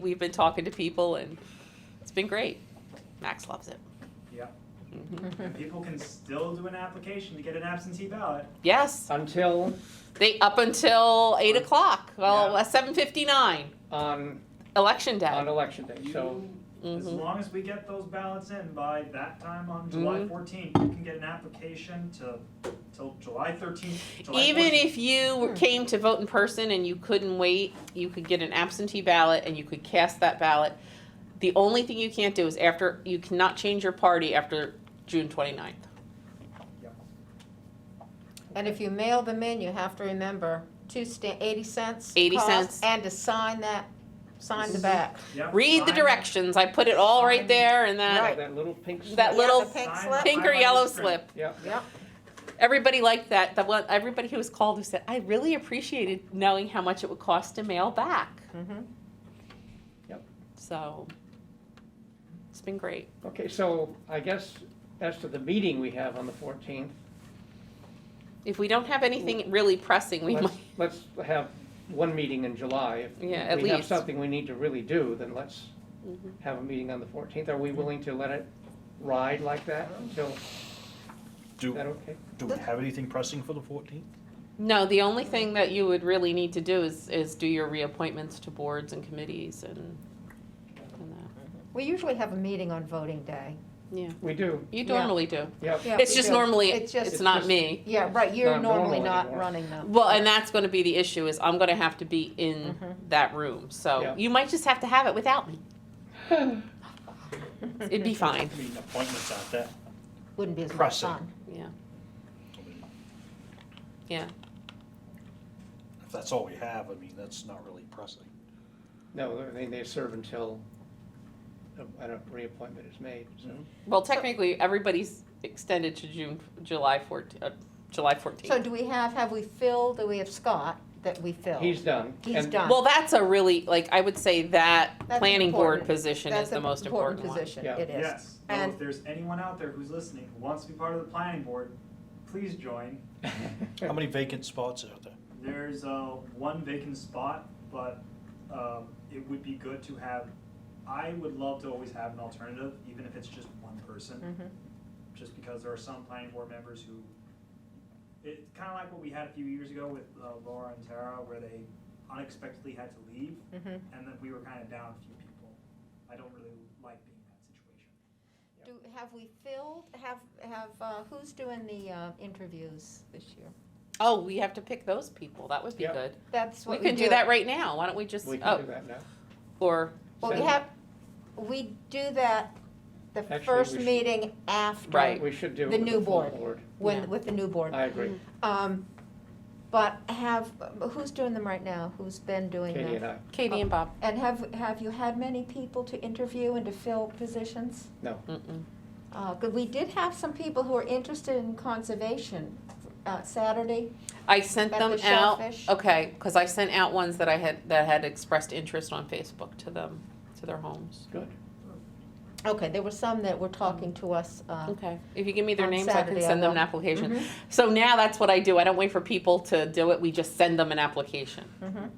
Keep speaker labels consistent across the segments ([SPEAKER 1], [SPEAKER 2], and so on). [SPEAKER 1] We've been talking to people and it's been great. Max loves it.
[SPEAKER 2] Yeah,
[SPEAKER 1] Mhm.
[SPEAKER 2] and people can still do an application to get an absentee ballot.
[SPEAKER 1] Yes,
[SPEAKER 3] until
[SPEAKER 1] they up until eight o'clock. Well, uh,
[SPEAKER 2] Yeah.
[SPEAKER 1] seven fifty nine,
[SPEAKER 3] on
[SPEAKER 1] election
[SPEAKER 3] um, on
[SPEAKER 1] day.
[SPEAKER 3] election day.
[SPEAKER 2] You-
[SPEAKER 3] So
[SPEAKER 2] As
[SPEAKER 1] Mhm.
[SPEAKER 2] long as we get those ballots in by that time on July
[SPEAKER 1] Mhm.
[SPEAKER 2] fourteenth, you can get an application to, till July thirteenth, July
[SPEAKER 1] Even
[SPEAKER 2] 14th.
[SPEAKER 1] if you came to vote in person and you couldn't wait, you could get an absentee ballot and you could cast that ballot. The only thing you can't do is after you cannot change your party after June 29th.
[SPEAKER 4] And if you mail them in, you have to remember, two sta- eighty cents.
[SPEAKER 1] 80
[SPEAKER 4] cost,
[SPEAKER 1] cents.
[SPEAKER 4] And to sign that, sign the
[SPEAKER 2] Mhm.
[SPEAKER 4] back.
[SPEAKER 2] Yep,
[SPEAKER 1] Read the
[SPEAKER 2] sign-
[SPEAKER 1] directions. I put it all right there and that
[SPEAKER 4] Right.
[SPEAKER 3] that little pink slip.
[SPEAKER 1] Uh, that
[SPEAKER 4] Yeah,
[SPEAKER 1] little
[SPEAKER 4] the pink
[SPEAKER 2] sign
[SPEAKER 4] slip.
[SPEAKER 2] up
[SPEAKER 1] pink or
[SPEAKER 2] by
[SPEAKER 1] yellow
[SPEAKER 2] the screen.
[SPEAKER 1] slip.
[SPEAKER 3] yeah.
[SPEAKER 4] Yep.
[SPEAKER 1] Everybody liked that. The one, everybody who was called who said, I really appreciated knowing how much it would cost to mail back.
[SPEAKER 4] Mm-hmm.
[SPEAKER 1] So it's been great.
[SPEAKER 3] Okay, so I guess as to the meeting we have on the 14th,
[SPEAKER 1] If we don't have anything really pressing, we
[SPEAKER 3] let's,
[SPEAKER 1] might.
[SPEAKER 3] let's have one meeting in July. If
[SPEAKER 1] Yeah, at
[SPEAKER 3] we have
[SPEAKER 1] least.
[SPEAKER 3] something we need to really do, then let's
[SPEAKER 1] Mhm.
[SPEAKER 3] have a meeting on the 14th. Are we willing to let it ride like that until, is
[SPEAKER 5] Do,
[SPEAKER 3] that okay?
[SPEAKER 5] do we have anything pressing for the fourteenth?
[SPEAKER 1] No, the only thing that you would really need to do is, is do your reappointments to boards and committees and, and that.
[SPEAKER 4] We usually have a meeting on voting day.
[SPEAKER 3] We do,
[SPEAKER 1] You
[SPEAKER 4] Yeah.
[SPEAKER 1] normally do.
[SPEAKER 3] yep.
[SPEAKER 4] Yeah,
[SPEAKER 1] It's
[SPEAKER 4] we
[SPEAKER 1] just
[SPEAKER 4] do.
[SPEAKER 1] normally,
[SPEAKER 4] It's just-
[SPEAKER 1] it's not
[SPEAKER 3] It's just-
[SPEAKER 1] me.
[SPEAKER 4] Yeah, right, you're
[SPEAKER 3] Not normal
[SPEAKER 4] normally not
[SPEAKER 3] anymore.
[SPEAKER 4] running them.
[SPEAKER 1] Well, and that's gonna be the issue is I'm gonna have to be in
[SPEAKER 4] Mhm.
[SPEAKER 1] that room. So
[SPEAKER 3] Yeah.
[SPEAKER 1] you might just have to have it without me. It'd be fine.
[SPEAKER 5] I mean, appointments out there.
[SPEAKER 4] Wouldn't be as much
[SPEAKER 5] pressing.
[SPEAKER 4] fun.
[SPEAKER 1] Yeah.
[SPEAKER 5] I mean,
[SPEAKER 1] Yeah.
[SPEAKER 5] If that's all we have, I mean, that's not really pressing.
[SPEAKER 3] No, I mean, they serve until a a reappointment is made, so.
[SPEAKER 1] Well, technically, everybody's extended to June, July 14, uh, July
[SPEAKER 4] So
[SPEAKER 1] 14th.
[SPEAKER 4] do we have, have we filled, do we have Scott that we filled?
[SPEAKER 3] He's done.
[SPEAKER 4] He's
[SPEAKER 3] And-
[SPEAKER 4] done.
[SPEAKER 1] Well, that's a really, like, I would say that
[SPEAKER 4] That's
[SPEAKER 1] planning board
[SPEAKER 4] important.
[SPEAKER 1] position is
[SPEAKER 4] That's
[SPEAKER 1] the
[SPEAKER 4] an
[SPEAKER 1] most important one.
[SPEAKER 4] position,
[SPEAKER 3] Yeah.
[SPEAKER 4] it is.
[SPEAKER 2] Yes, so
[SPEAKER 4] And-
[SPEAKER 2] if there's anyone out there who's listening who wants to be part of the planning board, please join.
[SPEAKER 5] How many vacant spots are there?
[SPEAKER 2] There's, uh, one vacant spot, but, um, it would be good to have, I would love to always have an alternative, even if it's just one person.
[SPEAKER 4] Mhm.
[SPEAKER 2] just because there are some planning board members who, it's kind of like what we had a few years ago with uh, Laura and Tara, where they unexpectedly had to leave,
[SPEAKER 4] Mhm.
[SPEAKER 2] and then we were kind of down a few people. I don't really like being in that situation.
[SPEAKER 4] Do, have we filled, have, have, uh, who's doing the uh, interviews this year?
[SPEAKER 1] Oh, we have to pick those people. That would be
[SPEAKER 3] Yep.
[SPEAKER 1] good.
[SPEAKER 4] That's
[SPEAKER 1] We
[SPEAKER 4] what we do.
[SPEAKER 1] could do that right now. Why don't we just,
[SPEAKER 3] We can do
[SPEAKER 1] oh,
[SPEAKER 3] that now.
[SPEAKER 1] or,
[SPEAKER 4] Well, we
[SPEAKER 3] Send-
[SPEAKER 4] have, we do that the
[SPEAKER 3] Actually,
[SPEAKER 4] first
[SPEAKER 3] we should-
[SPEAKER 4] meeting after,
[SPEAKER 1] Right.
[SPEAKER 3] We should do it
[SPEAKER 4] The
[SPEAKER 3] with the
[SPEAKER 4] new
[SPEAKER 3] full
[SPEAKER 4] board.
[SPEAKER 3] board.
[SPEAKER 1] Yeah.
[SPEAKER 4] when, with the new board.
[SPEAKER 3] I agree.
[SPEAKER 4] Um, But have, who's doing them right now? Who's been doing
[SPEAKER 3] Katie and
[SPEAKER 4] them?
[SPEAKER 3] I.
[SPEAKER 1] Katie and Bob.
[SPEAKER 4] And have, have you had many people to interview and to fill positions?
[SPEAKER 1] Mm-mm.
[SPEAKER 4] Uh, 'cause we did have some people who are interested in conservation, uh, Saturday.
[SPEAKER 1] I sent
[SPEAKER 4] About the
[SPEAKER 1] them out,
[SPEAKER 4] shellfish.
[SPEAKER 1] okay, because I sent out ones that I had, that had expressed interest on Facebook to them, to their homes.
[SPEAKER 3] Good.
[SPEAKER 1] Oh.
[SPEAKER 4] Okay, there were some that were talking to us, uh,
[SPEAKER 1] Okay, if you give me their
[SPEAKER 4] On
[SPEAKER 1] names, I can
[SPEAKER 4] Saturday, I
[SPEAKER 1] send them
[SPEAKER 4] will.
[SPEAKER 1] an application.
[SPEAKER 4] Mhm.
[SPEAKER 1] So now that's what I do. I don't wait for people to do it. We just send them an application
[SPEAKER 4] mhm.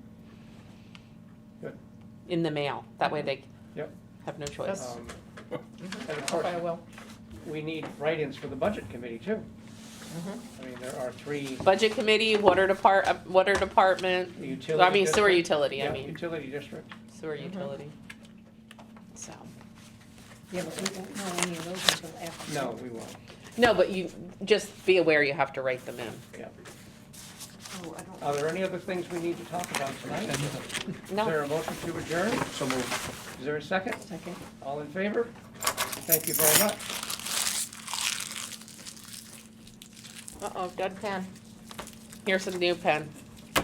[SPEAKER 1] in the mail. That
[SPEAKER 4] Mm-hmm.
[SPEAKER 1] way they
[SPEAKER 3] Yep.
[SPEAKER 1] have no choice.
[SPEAKER 3] Um, And of course,
[SPEAKER 4] I will.
[SPEAKER 3] we need write-ins for the budget committee too.
[SPEAKER 4] Mhm.
[SPEAKER 3] I mean, there are three
[SPEAKER 1] Budget committee, water depart, uh, water department,
[SPEAKER 3] utility.
[SPEAKER 1] I mean sewer
[SPEAKER 3] district-
[SPEAKER 1] utility, I
[SPEAKER 3] Yeah,
[SPEAKER 1] mean,
[SPEAKER 3] Utility district.
[SPEAKER 1] sewer
[SPEAKER 4] Mhm.
[SPEAKER 1] utility. So,
[SPEAKER 6] Yeah, but we won't know any of those until after.
[SPEAKER 3] No, we won't.
[SPEAKER 1] no, but you, just be aware you have to write them in.
[SPEAKER 6] Oh, I don't.
[SPEAKER 3] Are there any other things we need to talk about tonight? Is
[SPEAKER 1] No,
[SPEAKER 3] there a motion to adjourn?
[SPEAKER 5] So moved.
[SPEAKER 3] Is there a second?
[SPEAKER 6] Second.
[SPEAKER 3] All in favor? Thank you very much.
[SPEAKER 4] Uh-oh, dead pen.
[SPEAKER 1] here's some new pens.